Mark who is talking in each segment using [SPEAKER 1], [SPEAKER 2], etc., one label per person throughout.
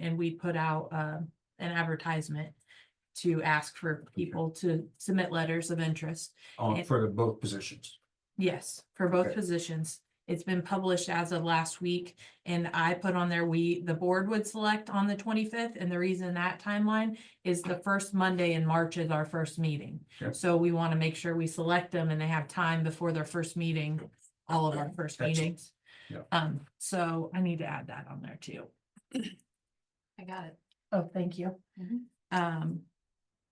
[SPEAKER 1] and we put out, um, an advertisement to ask for people to submit letters of interest.
[SPEAKER 2] on Oh, for the both positions.
[SPEAKER 1] Yes, for both
[SPEAKER 2] Okay.
[SPEAKER 1] positions. It's been published as of last week and I put on there, we, the board would select on the twenty-fifth. And the reason that timeline is the first Monday in March is our first meeting.
[SPEAKER 2] Okay.
[SPEAKER 1] So we want to make sure we select them and they have time before their first meeting, all of our first
[SPEAKER 2] Excellent.
[SPEAKER 1] meetings.
[SPEAKER 2] Yeah.
[SPEAKER 1] Um, so I need to add that on there too.
[SPEAKER 3] I got it.
[SPEAKER 1] Oh, thank you.
[SPEAKER 3] Mhm.
[SPEAKER 1] Um,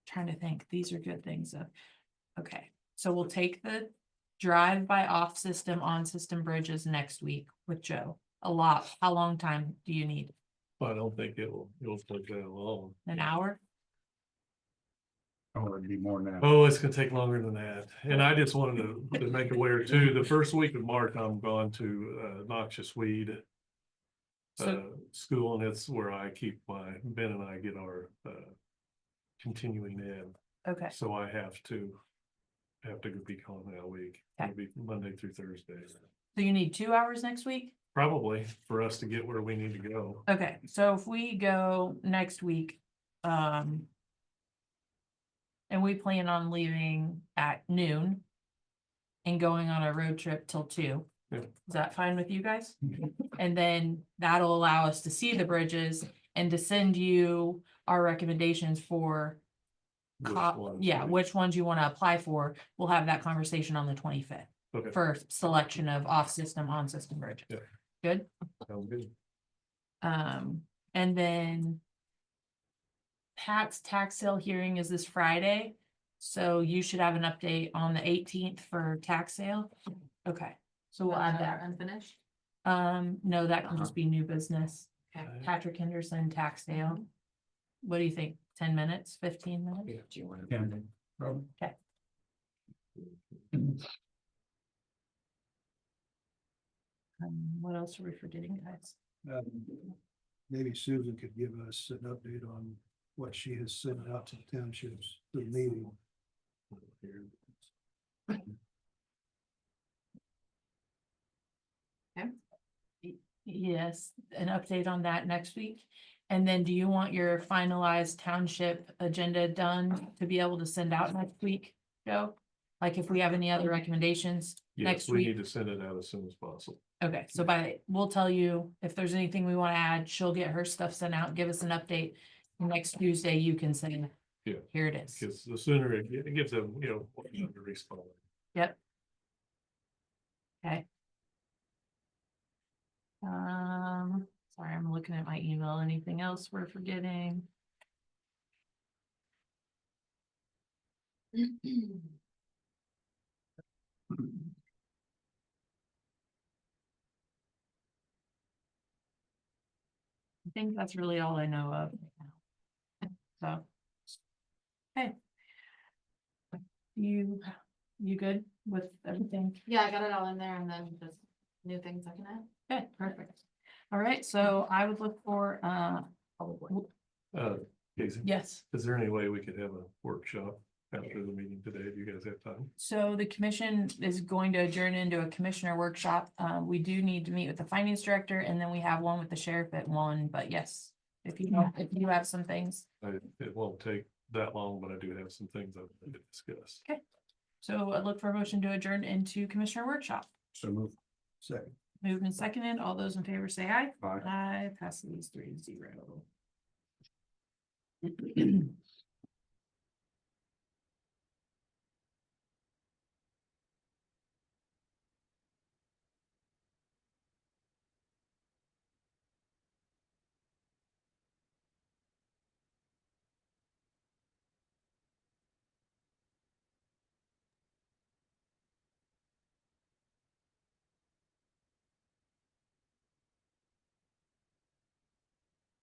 [SPEAKER 1] trying to think, these are good things of, okay, so we'll take the drive by off system, on system bridges next week with Joe. A lot, how long time do you need?
[SPEAKER 4] I don't think it will, it will take that long.
[SPEAKER 1] An hour?
[SPEAKER 2] Oh, it'd be more than that.
[SPEAKER 4] Oh, it's gonna take longer than that. And I just wanted to, to make aware too, the first week of March, I'm gone to, uh, noxious weed. Uh,
[SPEAKER 1] So,
[SPEAKER 4] school and it's where I keep my, Ben and I get our, uh. Continuing ed,
[SPEAKER 1] okay,
[SPEAKER 4] so I have to. Have to be gone that week,
[SPEAKER 1] Okay.
[SPEAKER 4] it'll be Monday through Thursday,
[SPEAKER 1] so you need two hours next week?
[SPEAKER 4] probably for us to get where we need to go.
[SPEAKER 1] Okay, so if we go next week, um. And we plan on leaving at noon. And going on a road trip till two.
[SPEAKER 4] Yeah.
[SPEAKER 1] Is that fine with you guys? And then that'll allow us to see the bridges and to send you our recommendations for.
[SPEAKER 4] which
[SPEAKER 1] co-
[SPEAKER 4] ones
[SPEAKER 1] yeah,
[SPEAKER 4] we-
[SPEAKER 1] which ones you wanna apply for. We'll have that conversation on the twenty-fifth
[SPEAKER 4] Okay,
[SPEAKER 1] for selection of off-system, on-system bridges.
[SPEAKER 4] Yeah.
[SPEAKER 1] Good?
[SPEAKER 4] sounds good.
[SPEAKER 1] Um, and then. Pat's tax sale hearing is this Friday, so you should have an update on the eighteenth for tax sale. Okay, so we'll add that.
[SPEAKER 3] Unfinished?
[SPEAKER 1] Um, no, that can
[SPEAKER 3] Uh-huh.
[SPEAKER 1] just be new business.
[SPEAKER 3] Okay.
[SPEAKER 4] Uh,
[SPEAKER 1] Patrick Henderson tax sale. What do you think? Ten minutes, fifteen minutes?
[SPEAKER 4] Do you want
[SPEAKER 2] Yeah. Oh, Rob?
[SPEAKER 1] Um, what else are we forgetting, guys?
[SPEAKER 5] Um, Maybe Susan could give us an update on what she has sent out to the townships, the meeting.
[SPEAKER 1] Yes, an update on that next week. And then do you want your finalized township agenda done to be able to send out next week, Joe? Like if we have any other recommendations?
[SPEAKER 4] Yes,
[SPEAKER 1] next
[SPEAKER 4] we
[SPEAKER 1] week.
[SPEAKER 4] need to send it out as soon as possible.
[SPEAKER 1] Okay, so by, we'll tell you if there's anything we want to add, she'll get her stuff sent out, give us an update. Next Tuesday, you can say.
[SPEAKER 4] Yeah.
[SPEAKER 1] Here it is.
[SPEAKER 4] Because the sooner it get- it gives them, you know, what time to respond.
[SPEAKER 1] Um, sorry, I'm looking at my email. Anything else we're forgetting? I think that's really all I know of. right now. So. Okay. You, you good with everything?
[SPEAKER 3] Yeah, I got it all in there and then just new things I can add.
[SPEAKER 1] Okay, perfect. All right, so I would look for, uh,
[SPEAKER 4] Uh, Casey,
[SPEAKER 1] yes.
[SPEAKER 4] is there any way we could have a workshop after the meeting today? Do you guys have time?
[SPEAKER 1] So the commission is going to adjourn into a commissioner workshop. Uh, we do need to meet with the finance director and then we have one with the sheriff at one, but yes. If you, have- if you have some things,
[SPEAKER 4] I, it won't take that long, but I do have some things I'd like to discuss.
[SPEAKER 1] so I look for a motion to adjourn into commissioner workshop.
[SPEAKER 2] So move.
[SPEAKER 5] Second.
[SPEAKER 1] Moved and seconded. All those in favor say aye.
[SPEAKER 2] Aye.
[SPEAKER 1] Aye, passes three to zero.